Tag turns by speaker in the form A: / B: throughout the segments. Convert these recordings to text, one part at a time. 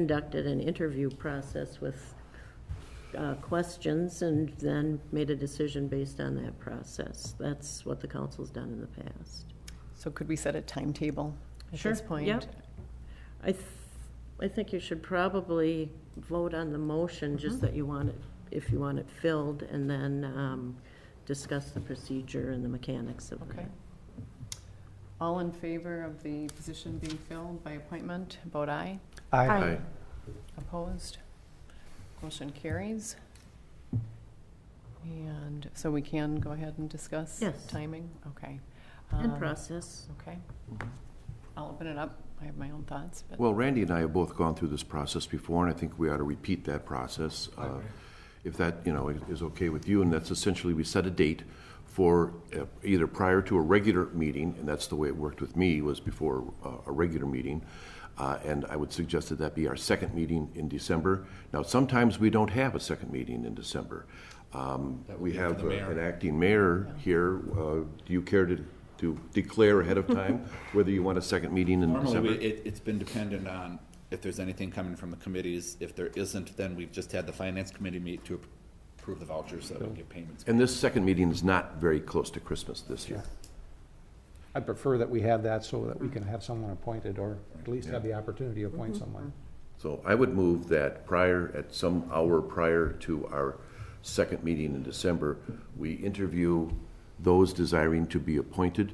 A: conducted an interview process with uh, questions and then made a decision based on that process. That's what the council's done in the past.
B: So could we set a timetable at
A: Sure,
B: this point?
A: yep. I, th- I think you should probably vote on the motion, just
B: Mm-hmm.
A: that you want it, if you want it filled, and then um, discuss the procedure and the mechanics of
B: Okay.
A: that.
B: All in favor of the position being filled by appointment, vote aye.
C: Aye.
B: Opposed? Motion carries. And so we can go ahead and discuss?
A: Yes.
B: Timing? Okay.
A: And
B: Um,
A: process.
B: Okay. I'll open it up. I have my own thoughts, but.
C: Well, Randy and I have both gone through this process before, and I think we ought to repeat that process. uh, If that, you know, is okay with you, and that's essentially, we set a date for uh, either prior to a regular meeting, and that's the way it worked with me, was before uh, a regular meeting. uh, And I would suggest that that be our second meeting in December. Now, sometimes we don't have a second meeting in December. Um, We have uh, an acting mayor here. Uh, Do you care to, to declare ahead of time whether you want a second meeting in December?
D: Normally, we- it, it's been dependent on if there's anything coming from the committees. If there isn't, then we've just had the finance committee meet to approve the vouchers so that we get payments.
C: And this second meeting is not very close to Christmas this year.
E: I prefer that we have that so that we can have someone appointed, or at least have the opportunity to appoint someone.
C: So I would move that prior, at some hour prior to our second meeting in December, we interview those desiring to be appointed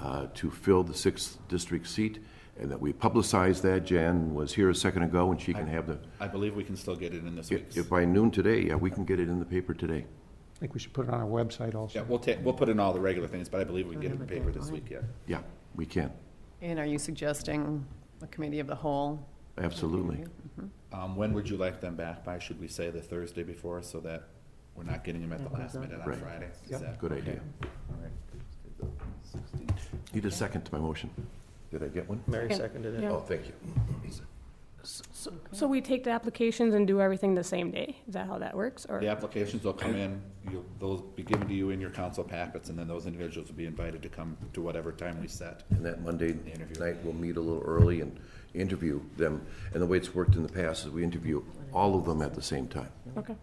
C: uh, to fill the sixth district seat, and that we publicize that. Jan was here a second ago, and she can have the,
D: I believe we can still get it in this
C: if
D: week's.
C: if by noon today, yeah, we can get it in the paper today.
E: I think we should put it on our website
D: Yeah,
E: also.
D: we'll ta, we'll put in all the regular things, but I believe we can get it in the paper this week, yeah.
C: Yeah, we can,
B: And are you suggesting a committee of the whole?
C: absolutely.
D: Um, when would you like them back by? Should we say the Thursday before so that we're not getting them at the last minute on
C: Right.
D: Friday? Is
E: Yep.
D: that-
C: Good
D: okay.
C: idea.
D: All right. Thursday the 16th.
C: Need a second to my motion. Did I get one?
F: Mary seconded it.
C: Oh, thank you.
F: So so we take the applications and do everything the same day? Is that how that works, or?
D: The applications will come in, you'll, those be given to you in your council packets, and then those individuals will be invited to come to whatever time we set.
C: And that Monday
D: Interview.
C: night, we'll meet a little early and interview them. And the way it's worked in the past is we interview all of them at the same time.
F: Okay.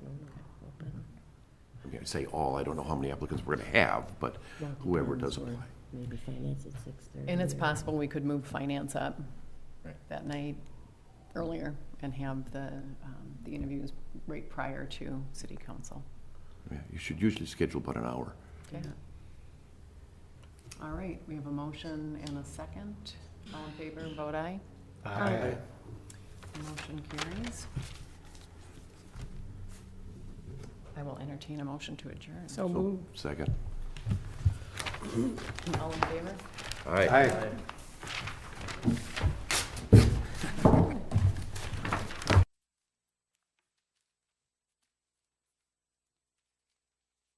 C: I mean, I say all, I don't know how many applicants we're gonna have, but whoever does apply.
A: Maybe finance at six thirty.
B: And it's possible we could move finance up
D: Right.
B: that night earlier and have the, um, the interviews right prior to city council.
C: Yeah, You should usually schedule about an hour.
B: Okay. All right, we have a motion and a second. All in favor, vote aye.
E: Aye.
B: Motion carries. I will entertain a motion to adjourn.
F: So
C: So,
F: moved.
C: second.
B: All in favor?
C: All right.
E: Aye.